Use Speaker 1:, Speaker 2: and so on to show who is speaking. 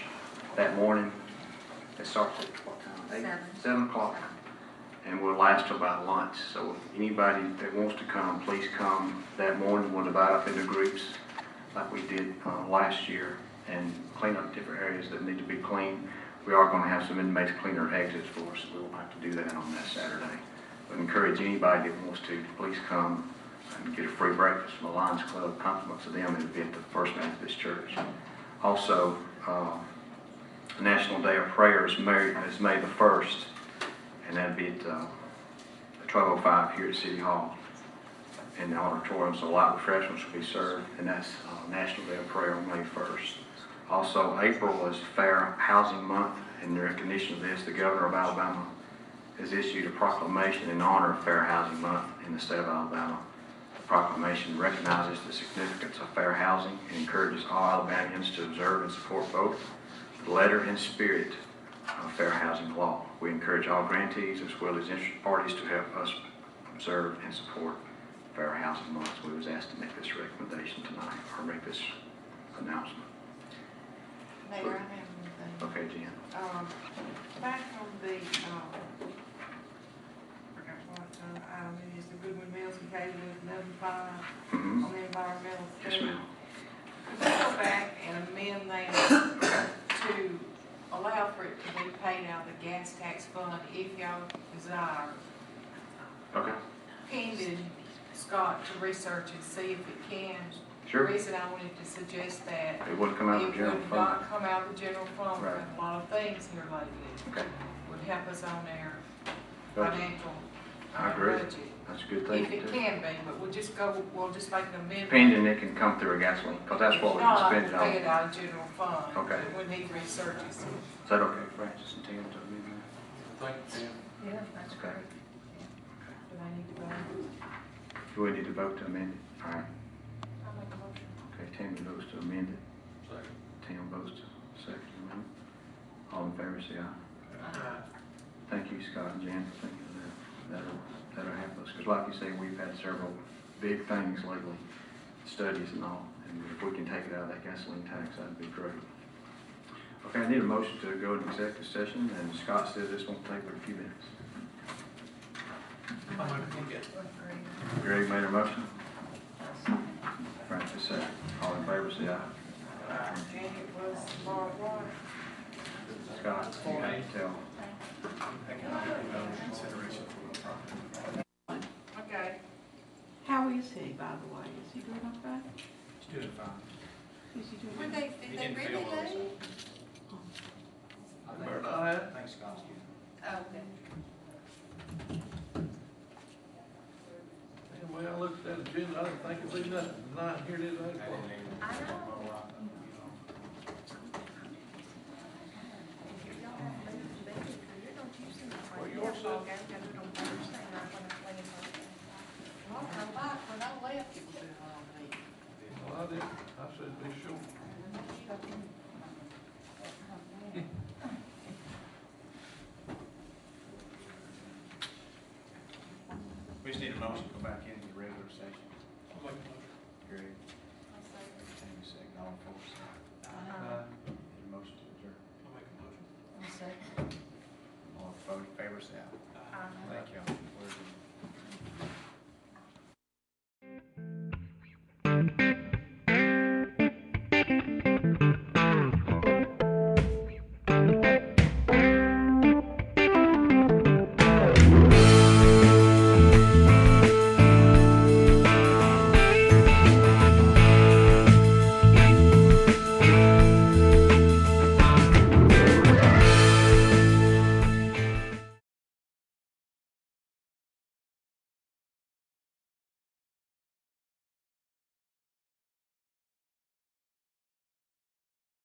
Speaker 1: that morning. It starts at what time? Eight?
Speaker 2: Seven.
Speaker 1: Seven o'clock. And will last till about lunch. So if anybody that wants to come, please come that morning. We'll divide up into groups like we did uh, last year and clean up different areas that need to be cleaned. We are going to have some inmates clean their exits for us. We won't have to do that on that Saturday. But encourage anybody that wants to, please come and get a free breakfast from the Lions Club. Compliments of them. It'll be at the First Methodist Church. Also, uh, the National Day of Prayer is May, is May the 1st, and that'd be at uh, 12:05 here at City Hall in the auditorium, so a lot of refreshments will be served, and that's uh, National Day of Prayer on May 1st. Also, April is Fair Housing Month, and in recognition of this, the governor of Alabama has issued a proclamation in honor of Fair Housing Month in the state of Alabama. The proclamation recognizes the significance of fair housing and encourages all Alabamians to observe and support both the letter and spirit of fair housing law. We encourage all grantees as well as interested parties to help us observe and support fair housing laws. We was asked to make this recommendation tonight, or make this announcement.
Speaker 2: Mayor, I have one
Speaker 1: Okay, Jen?
Speaker 2: thing. Um, back on the, um, I forgot what, uh, item it is, the Goodwin Mills, we gave with eleven five
Speaker 1: Mm-hmm.
Speaker 2: on the environmental study.
Speaker 1: Yes, ma'am.
Speaker 2: Could we go back and amend that to allow for it to be paid out of the gas tax fund if y'all desire?
Speaker 1: Okay,
Speaker 2: Pending Scott to research and see if it can.
Speaker 1: sure.
Speaker 2: The reason I wanted to suggest that
Speaker 1: It would come out of
Speaker 2: It
Speaker 1: the general
Speaker 2: would
Speaker 1: fund.
Speaker 2: not come out of the general fund,
Speaker 1: Right.
Speaker 2: but a lot of things here lately
Speaker 1: Okay,
Speaker 2: would help us on our
Speaker 1: Budget.
Speaker 2: financial
Speaker 1: I
Speaker 2: uh,
Speaker 1: agree.
Speaker 2: budget.
Speaker 1: that's a good thing.
Speaker 2: If
Speaker 1: to
Speaker 2: it
Speaker 1: do.
Speaker 2: can be, but we'll just go, we'll just make an amendment.
Speaker 1: Pending it can come through a gasoline, because that's what we
Speaker 2: Not
Speaker 1: spend it
Speaker 2: Pay
Speaker 1: on.
Speaker 2: it out of general fund.
Speaker 1: Okay.
Speaker 2: but We need researchers.
Speaker 1: Is that okay, Francis and Tim, to amend that?
Speaker 3: Thank you, Tim.
Speaker 2: Yeah, that's
Speaker 1: great.
Speaker 2: Do I need to go?
Speaker 1: Do we need to vote to amend it? All right,
Speaker 2: I'll make a motion.
Speaker 1: okay, Tim votes to amend it.
Speaker 3: Second.
Speaker 1: Tim votes to second amendment. All in favor, say aye. Thank you, Scott and Jan, for thinking of that. That'll, that'll help us, because like you say, we've had several big things lately, studies and all, and if we can take it out of that gasoline tax, that'd be great. Okay, I need a motion to go into executive session, and Scott said this won't take but a few minutes. Greg made a motion. Francis second. All in favor, say aye.
Speaker 2: Uh, Janet was Laura White.
Speaker 1: Scott, you can tell.
Speaker 2: Okay.
Speaker 4: How is he, by the way? Is he doing okay?
Speaker 3: He's doing fine.
Speaker 4: Is he doing?
Speaker 5: Were
Speaker 4: okay?
Speaker 5: they, did they really leave?
Speaker 3: Better not have. Thanks, Scott's good.
Speaker 5: Oh, okay.
Speaker 3: Yeah, Well, I looked at that agenda, I didn't think it'd be nothing, not here today.
Speaker 5: I know.
Speaker 3: Well, yours said-
Speaker 2: Well, her life, when I left, it was on me.
Speaker 3: Well, I did, I said be sure.
Speaker 6: We just need a motion to go back into the regular session.
Speaker 3: I'll make a motion.
Speaker 1: Uh,